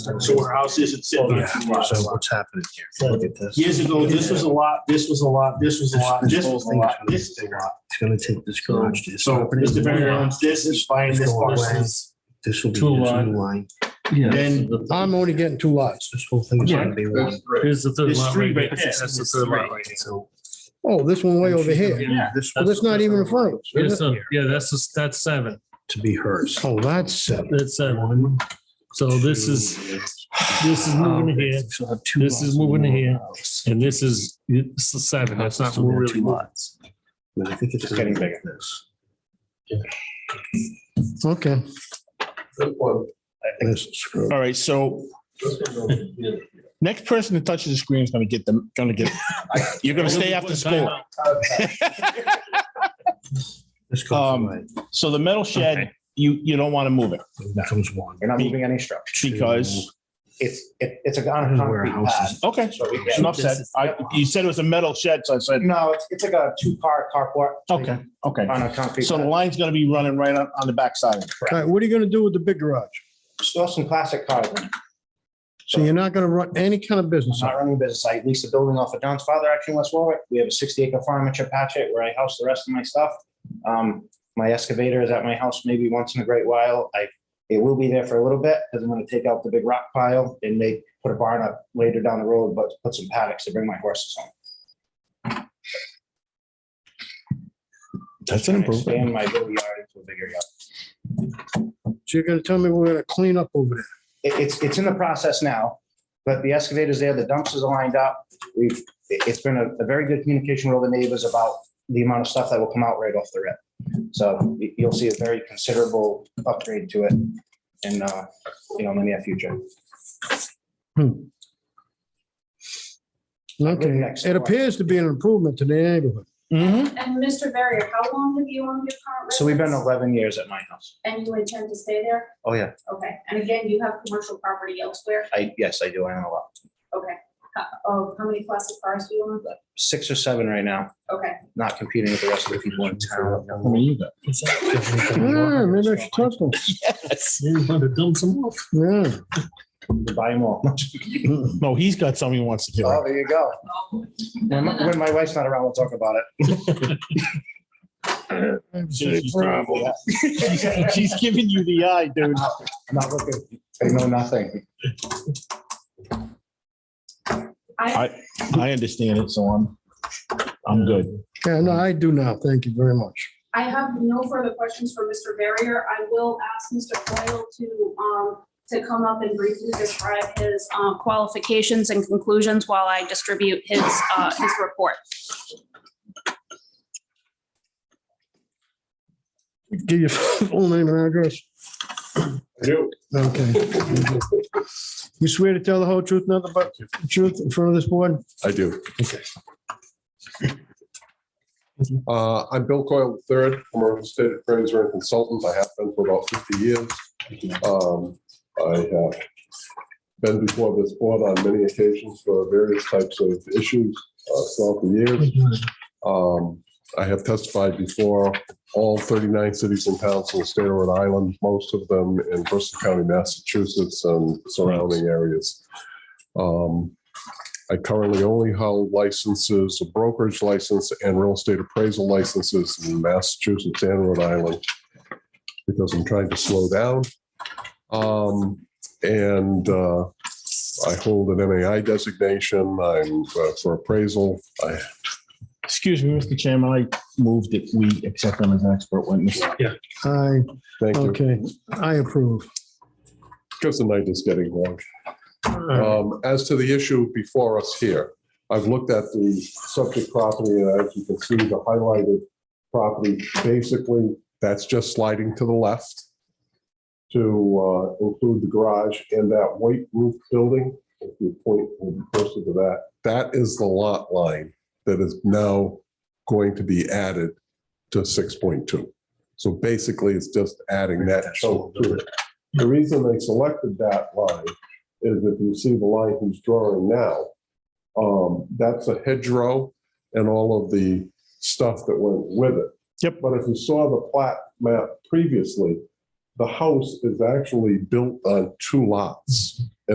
So our house isn't sitting on Oh, Yeah, two so lots. what's happening here? Look at this. Years ago, this was a lot, this was a lot, this was a lot, This- this this was a whole lot, thing's this is a lot. It's gonna take this garage to this So property. Mr. Barry owns this, is buying this parcel. This will be this Two new line. line. Then I'm only getting two lots. This whole thing is gonna be one. Here's the third There's lot. three right right there. there. That's the There's third three. lot right there. So Oh, this one way over here. Yeah. This Well, that's not even a frontage. Here's is it? some- Yeah, that's, just- that's seven. to be hers. Oh, that's seven. That's seven. So this is, this is moving here, This is moving here. and this is, it's the seven. That's not Still got really two lots. But I think it's getting bigger. This. Okay. This is screwed. All right, so next person that touches the screen is gonna get them, gonna get, you're gonna stay after school. This goes Um, away. So the metal shed, Okay. you, you don't wanna move it It becomes one. You're not moving any structure. because, It's, it, it's a This con- is where concrete pad. houses. okay, So we can, enough said. I, you said it was a metal shed, so I said, no, it's, it's like a two-car carport. okay, okay. On a concrete. So the pad. line's gonna be running right on, on the backside of it. All right, what are you gonna do with the big garage? Still some classic cars. in it. So you're not gonna run any kind of I'm business. out not running a business. I leased a building off of Don's father, actually, in West Warwick. We have a sixty acre farm in Chapachet where I house the rest of my stuff. Um, my excavator is at my house maybe once in a great while. I, it will be there for a little bit because I'm gonna take out the big rock pile and they put a barn up later down the road, but put some paddocks to bring my horses home. That's and Expand my little yard into a bigger yard. So you're gonna tell me we're gonna clean up over there? it, it's, it's in the process now, but the excavator's there, the dumpsters are lined up. We've, it- it's been a, a very good communication with all the neighbors about the amount of stuff that will come out right off the rip. So y- you'll see a very considerable upgrade to it in, uh, you know, in the near future. Okay, next it door. appears to be an improvement to the neighborhood. Mm-hmm. And Mr. Barrier, how long have you owned your current? So we've been residence? eleven years at my house. And you intend to stay there? Oh, yeah. Okay, and again, you have commercial property elsewhere? I, yes, I do. I own a lot. Okay. How- Oh, how many classic cars do you own? Six or seven right now, Okay, not competing with the rest of the people in town. Yeah, maybe I should talk to him. You want to dump some off? Yeah. Buy them all. No, Oh, he's got something he wants to do. Oh, there you go. When my when my wife's not around, we'll talk about it. She's she's giving you the eye, dude. I'm not looking. I know nothing. I, I understand it, so I'm, I'm good. Yeah, no, I do now. Thank you very much. I have no further questions for Mr. Barrier. I will ask Mr. Coyle to, um, to come up and briefly describe his um, qualifications and conclusions while I distribute his, uh, his report. Give your full name and address. Okay. You swear to tell the whole truth, nothing but the truth in front of this board? I do. Uh, I'm Bill Coyle III, former state appraiser and consultant. I have been for about fifty years. Um, I have been before this board on many occasions for various types of issues uh, throughout the years. Um, I have testified before all thirty-nine cities and towns in the state of Rhode Island, most of them in Bristol County, Massachusetts, and surrounding areas. Um, I currently only hold licenses, a brokerage license and real estate appraisal licenses in Massachusetts and Rhode Island because I'm trying to slow down. Um, and, uh, I hold an MAI designation. I'm uh, for appraisal. I, Excuse me, Mr. Chairman, I moved that we accept him as an expert witness. I, thank you. okay, I approve. Because the night is getting long. Um, As to the issue before us here, I've looked at the subject property, and as you can see, the highlighted property, basically, that's just sliding to the left to uh, include the garage and that white roof building, if you point, will be closer to that. That is the lot line that is now going to be added to 6.2. So basically, it's just adding that chunk to it. The reason they selected that line is if you see the line he's drawing now, um, that's a hedgerow and all of the stuff that went with it. Yep. But if you saw the plat map previously, the house is actually built on two lots.